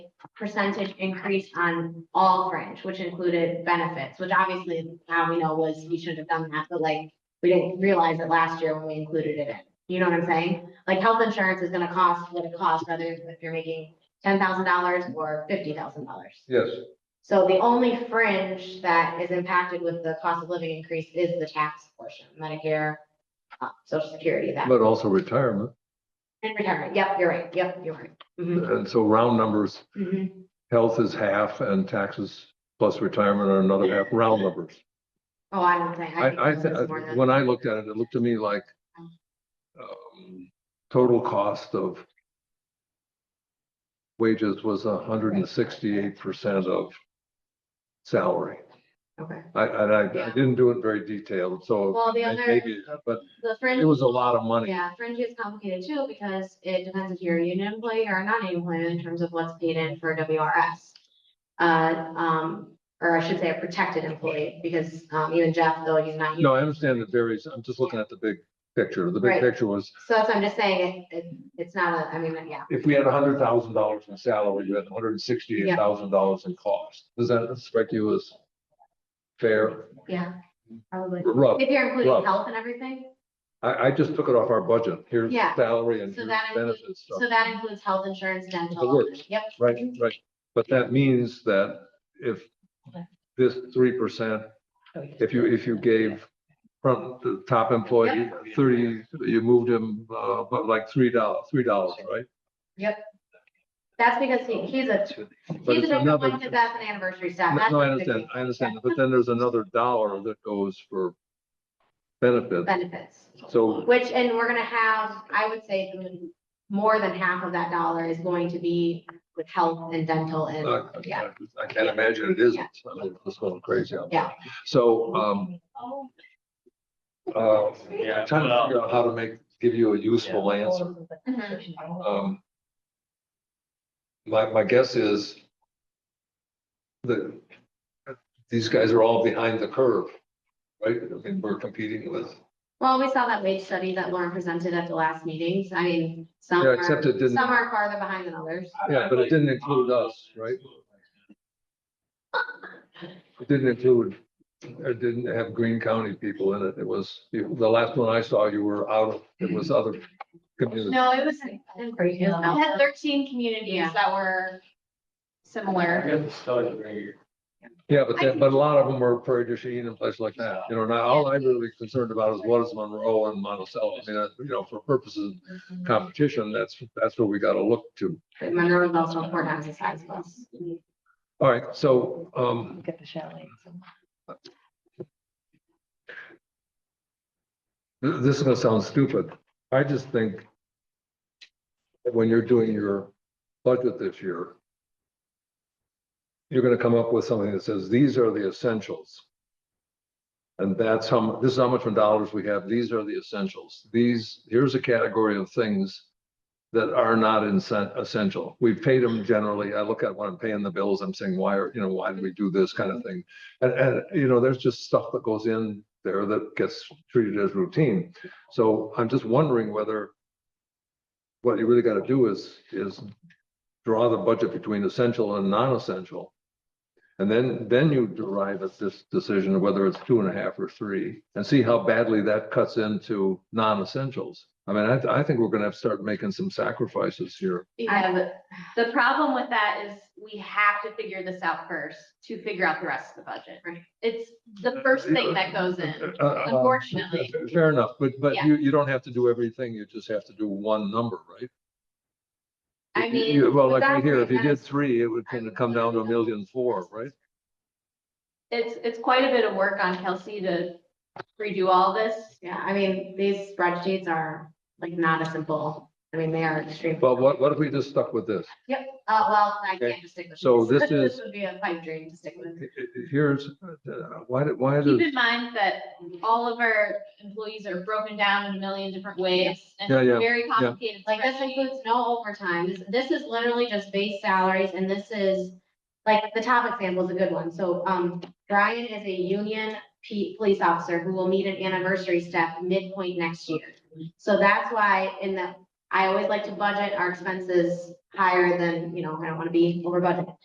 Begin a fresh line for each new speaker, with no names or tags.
percentage increase on all fringe, which included benefits, which obviously now we know was, we should have done that, but like, we didn't realize it last year when we included it in. You know what I'm saying? Like, health insurance is gonna cost what it costs, whether if you're making ten thousand dollars or fifty thousand dollars.
Yes,
So the only fringe that is impacted with the cost of living increase is the tax portion, Medicare, uh, social security, that,
but also retirement.
and retirement, yep, you're right, yep, you're right. Mhm,
And so round numbers,
mhm.
health is half and taxes plus retirement are another half, round numbers.
Oh, I don't think.
I, uh, I,
think it was more
thi-
than-
when I looked at it, it looked to me like um, total cost of wages was hundred and sixty-eight percent of salary.
Okay,
I, and I, I
Yeah.
didn't do it very detailed, so
well, the
may-
other,
maybe, but
the
it
fringe,
was a lot of money.
yeah, fringe is complicated too, because it depends if you're a union employee or a non-union employee in terms of what's paid in for WRS. Uh, um, or I should say a protected employee, because, um, even Jeff, though he's not. union-
No, I understand it varies. I'm just looking at the big picture. The big
Right.
picture was
So that's what I'm just saying, it, it, it's not a, I mean, yeah,
if we had hundred thousand dollars in salary, we had hundred and sixty-eight thousand dollars in cost. Does that strike you as fair?
yeah, probably.
Rough.
If you're including
Rough.
health and everything,
I, I just took it off our budget. Here's
Yeah.
salary and
So
here's
that includes-
benefits stuff.
so that includes health insurance, dental.
The works.
Yep,
Right, right. But that means that if this three percent,
Oh,
if you, if you gave from the top employee thirty, you moved him, uh, but like three dollars, three dollars, right?
that's because he, he's a,
But
he's a
it's
different
another.
one because that's an anniversary staff.
No,
That's
no, I
what it could
understand, I understand, but then there's another dollar that goes for
be.
benefits,
Benefits,
so, uh,
which, and we're gonna have, I would say, the- more than half of that dollar is going to be with health and dental
uh,
and, oh, yeah.
I I can't imagine it isn't, I mean, it's going crazy out there.
Yeah.
So, um,
Oh.
uh, I'm trying to figure out how to make, give you a useful answer.
Mhm.
Um, my, my guess is that these guys are all behind the curve, right? I mean, we're competing with,
Well, we saw that wage study that Lauren presented at the last meetings. I mean, some
Yeah,
are,
except it didn't-
some are farther behind than others.
yeah, but it didn't include us, right? It didn't include, it didn't have Green County people in it. It was, you- the last one I saw, you were out of, it was other communities.
No, it was,
Great Hill.
I had thirteen communities
Yeah.
that
I
were similar.
got the study right here.
Yeah, but that, but a lot of them were Prairie du Chien and places like that, you know, now all I'm really concerned about is what is Monroe and Monticello, I mean, uh, you know, for purposes of competition, that's, that's what we gotta look to.
But Monroe is also four times the size of us.
All right, so, um,
Look at the chalet.
th- this is gonna sound stupid, I just think that when you're doing your budget this year, you're gonna come up with something that says, these are the essentials. And that's how, mu- this is how much in dollars we have. These are the essentials. These, here's a category of things that are not insen- essential. We've paid them generally. I look at when I'm paying the bills, I'm saying, why are, you know, why did we do this kind of thing? And, and, you know, there's just stuff that goes in there that gets treated as routine. So I'm just wondering whether what you really gotta do is, is draw the budget between essential and non-essential. And then, then you derive at this decision of whether it's two and a half or three and see how badly that cuts into non-essentials. I mean, I, I think we're gonna have to start making some sacrifices here.
I have a-
The problem with that is we have to figure this out first to figure out the rest of the budget. It's the first thing that goes in.
Uh, uh,
Unfortunately.
Fair enough, but, but
Yeah.
you, you don't have to do everything. You just have to do one number, right?
I
You-
mean,
you- Well, like right
without
here, if you
doing
did
that,
three, it would kind of come down to a
uh,
million four, right?
It's, it's quite a bit of work on Kelsey to redo all this.
Yeah, I mean, these spreadsheets are like not a simple, I mean, they are extreme.
But what, what if we just stuck with this?
Uh, well, I
Okay,
can't just stick with.
so
these.
this is-
Would be a pipe dream to stick with.
H- h- Here's, uh, why, did- why
Keep
does?
in mind that all of our employees are broken down in a million different ways. and
Yeah, yeah,
Very complicated.
Like this
spreadsheet.
includes no overtime. This, this is literally just base salaries and this is, like, the top example is a good one. So, um, Brian is a union P, police officer who will meet an anniversary step midpoint next year. So that's why in the I always like to budget our expenses higher than, you know, I don't wanna be over budget.